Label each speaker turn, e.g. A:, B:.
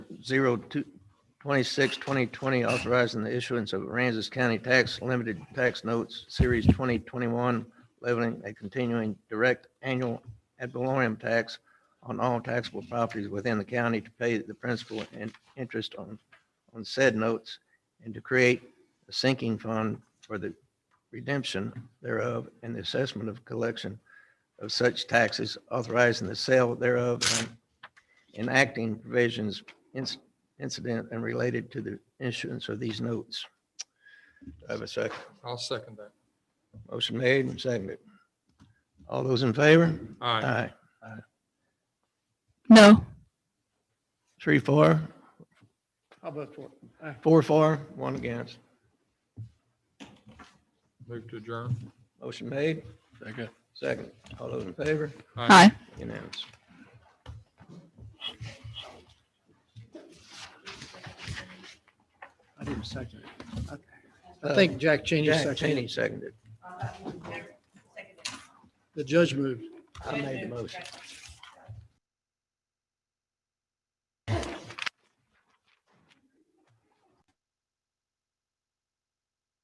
A: zero two, twenty-six, twenty twenty, authorizing the issuance of Aransas County Tax Limited Tax Notes, Series twenty twenty-one, leveling a continuing direct annual ad valorem tax on all taxable properties within the county to pay the principal and interest on, on said notes and to create a sinking fund for the redemption thereof and the assessment of collection of such taxes, authorizing the sale thereof and enacting provisions inc- incident and related to the issuance of these notes. Do I have a second?
B: I'll second that.
A: Motion made and seconded. All those in favor?
B: All right,
A: Aye.
C: No.
A: Three, four,
D: I'll vote for it.
A: four, four, one against.
B: move to adjourn.
A: Motion made,
D: Second.
A: second. All those in favor?
B: All right.
C: Hi.
A: Unanimous.
D: I didn't second it. I- I think Jack Cheney
A: Jack
D: seconded.
A: Cheney
D: it.
A: seconded.
D: The judge moved.
A: I made the motion.